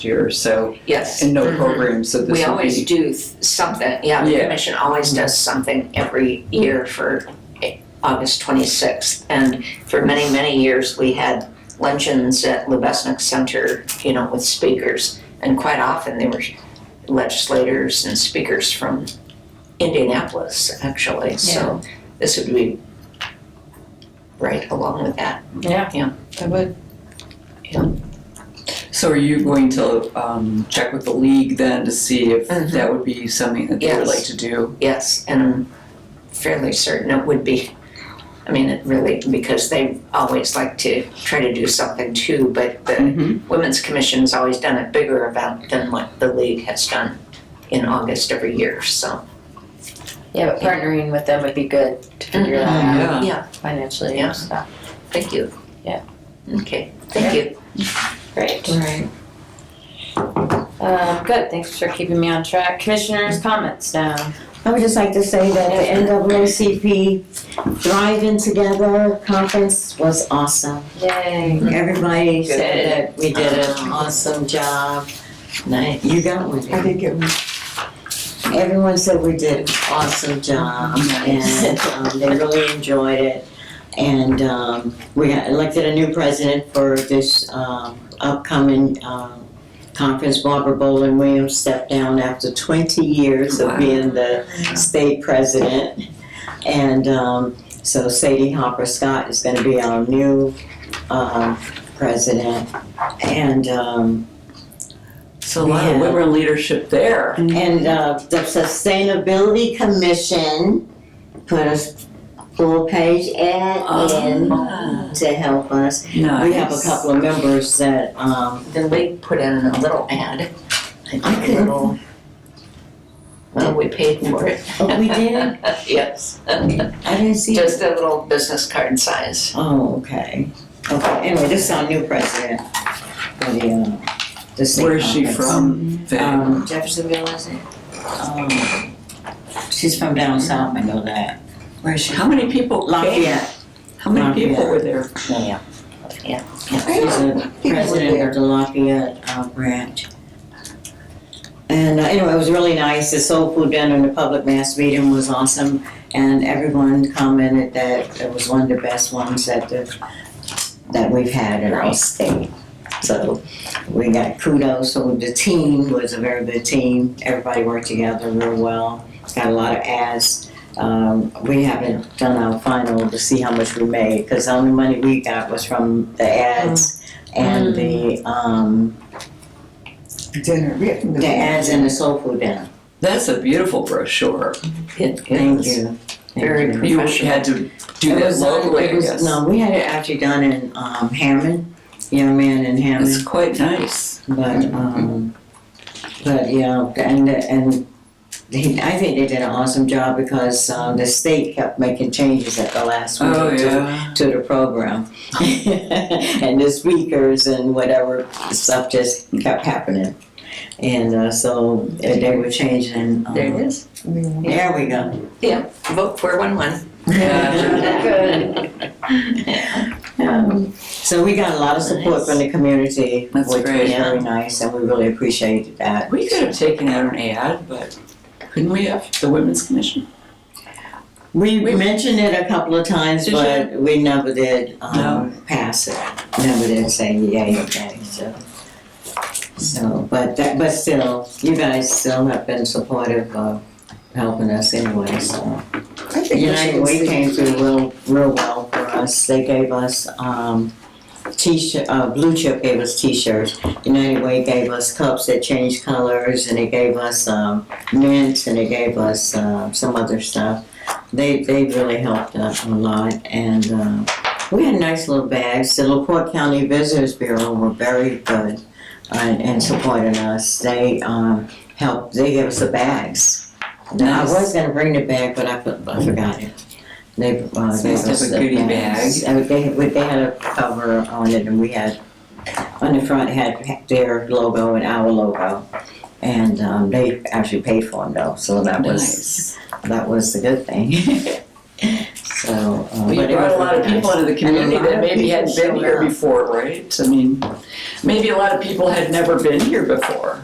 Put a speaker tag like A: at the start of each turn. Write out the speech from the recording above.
A: year, so,
B: Yes.
A: and
C: Mm-hmm.
A: no
B: Mhm.
A: program, so
B: We
A: this will
B: always
A: be.
B: do th- something, yeah, the
A: Yeah.
B: commission always does something every year for eh, August 26th. And for many, many years, we had luncheons at Lubesnik Center, you know, with speakers. And quite often, there were legislators and speakers from Indianapolis, actually. So this would be right along with that.
D: I would.
A: So are you going to, um, check with the league then to see if
C: Mm-hmm.
B: Mhm.
A: that would be something that they would
B: Yes.
A: like to do?
B: Yes, and I'm fairly certain it would be. I mean, it really, because they always like to try to do something too, but the
C: Mm-hmm.
A: Mhm.
B: Women's Commission's always done a bigger event than what the league has done in August every year, so.
D: Yeah, but partnering with them would be good to figure that
A: Yeah.
D: out
B: Yeah,
D: financially
B: Yeah.
D: and stuff.
B: thank you.
D: Yeah.
B: Okay, thank you.
D: Great.
B: Right.
D: Um, good, thanks for keeping me on track. Commissioners' comments now.
C: I would just like to say that the NAACP Drive-In Together Conference was awesome.
D: Yay.
C: Everybody
D: Good.
C: said that we did an awesome job.
B: Nice.
C: You got one. I think it was. Everyone said we did an awesome job and um, they really enjoyed it. And um, we got elected a new president for this um, upcoming um, conference. Barbara Bolin Williams stepped down after 20 years
B: Wow.
C: of being the state president. And um, so Sadie Hopper Scott is going to be our new um, president. And um,
A: So a lot of
C: Yeah.
A: women in leadership there.
C: And uh, the Sustainability Commission put a full page ad in
A: Ah,
C: to help us. We have a
A: Nice.
C: couple of members that, um,
B: The league put in a little ad.
C: I
B: A
C: couldn't-
B: little. Well, we paid for it.
C: oh, we did?
B: Yes,
C: I didn't see. it.
B: just a little business card size.
C: Oh, okay. Okay, anyway, this is our new president. for the, uh, the state
A: Where is she
C: conference.
A: from? Then?
C: Um,
D: Jeffersonville, is it?
C: um, She's from down south, I know that. Where is she?
A: How many people came?
C: Lafayette.
A: How many people
C: Lafayette.
A: were there?
C: Yeah.
B: Yeah.
C: She's a president of the Lafayette uh, branch. And uh, anyway, it was really nice. The soul food dinner and the public mass meeting was awesome. And everyone commented that it was one of the best ones that the, that we've had in our state. So we got kudos. So the team was a very good team. Everybody worked together real well. Got a lot of ads. Um, we haven't done our final to see how much we made because the only money we got was from the ads and the um,
E: dinner. We had-
C: the ads and the soul food dinner.
A: That's a beautiful brochure.
B: It
C: Thank
B: is
C: you. Thank
B: very
C: you.
A: You
B: professional.
A: had to do
C: It
A: that
C: was, uh,
A: locally,
C: it
A: I
C: was-
A: guess.
C: No, we had it actually done in um, Hammond, young man in Hammond.
A: It's quite nice.
C: But um, but yeah, and and he, I think they did an awesome job because um, the state kept making changes at the last minute
A: Oh,
C: to-
A: yeah.
C: to the program. and the speakers and whatever stuff just kept happening. And uh, so uh, they were changing. um,
B: There it is.
C: There we go.
B: Vote for one one.
A: Yeah.
D: Good.
C: Um, So we got a lot of support from the community,
A: That's
C: which
A: great.
C: was very nice, and we really appreciated that.
A: We could have taken out an ad, but couldn't we have the Women's Commission?
C: We
A: We-
C: mentioned it a couple of times,
A: Did
C: but we never did um, pass it. Never did say yay or nay. So, so, but that, but still, you guys still have been supportive of helping us anyway. So,
E: I think we
C: United
E: should
C: Way
E: see.
C: came through real, real well for us. They gave us um, t-shirt. Uh, Blue Chip gave us t-shirts. United Way gave us cups that changed colors, and they gave us um, mints, and they gave us uh, some other stuff they they really helped us a lot, and uh, we had nice little bags. The LaPorte County Visitors Bureau were very good uh, in supporting us. They um, helped. They gave us the bags. Now, I was gonna bring the bag, but I, put, I forgot it. They uh,
A: So
C: gave
A: it's
C: us
A: just a
C: the
A: goodie
C: bags. And they we- they had a cover on it, and we had on the front had their logo and our logo. And um, they actually paid for them though, so that was
A: Nice.
C: that was the good thing. so. uh,
A: Well,
C: but
A: you
C: it
A: brought
C: was
A: a lot of
C: really
A: people
C: nice.
A: into the community that maybe hadn't been here before, right? I mean, maybe a lot of people had never been here before.